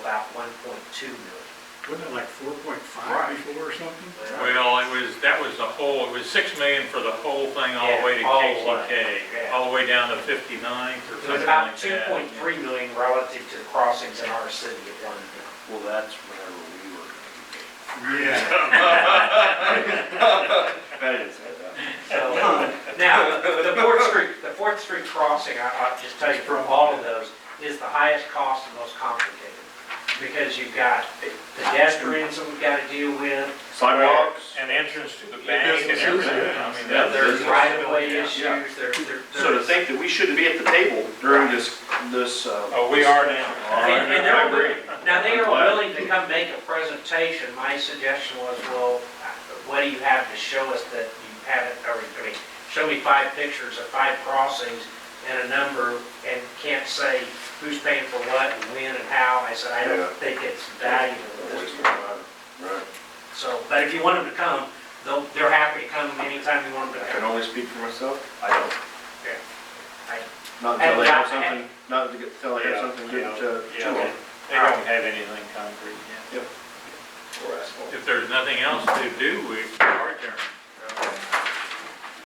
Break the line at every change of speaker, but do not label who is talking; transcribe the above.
about one point two million.
Wasn't it like four point
Right.
five before or something?
Well,
Well, it was, that was the whole, it was six million for the whole thing, all the way to
Yeah, all the way,
KCK,
yeah.
all the way down to 59th or
It was
something like
about two
that.
point three million relative to the crossings in our city at one time.
Well, that's whenever we were.
Yeah.
That is, uh,
So, now, the Fourth Street, the Fourth Street crossing, I- I'll just tell you from all of those, is the highest cost and most complicated. Because you've got pedestrians that we've got to deal with,
Sidewalks.
And entrance to the bank and
businesses,
everything,
yeah.
I mean,
Yeah,
that-
there's
there's.
right-of-way
yeah.
issues, there, there.
So to
there's-
think that we shouldn't be at the table during this, this, uh.
Oh, we are now.
And and they're,
I
willing-
agree.
now, they are
I'm glad.
willing to come make a presentation, my suggestion was, well, what do you have to show us that you haven't, or, I mean, show me five pictures of five crossings and a number, and can't say who's paying for what and when and how, I said, I
Yeah.
don't think it's valuable at this point.
Right.
So, but if you want them to come, they'll, they're happy to come anytime you want them
I
to
can
come.
only speak for myself, I don't.
Yeah. I-
Not until they have
And-
something, not to get, until they have
Yeah,
something
yeah,
good to,
yeah,
chew on.
They don't have anything concrete yet.
Or asphalt.
If there's nothing else to do, we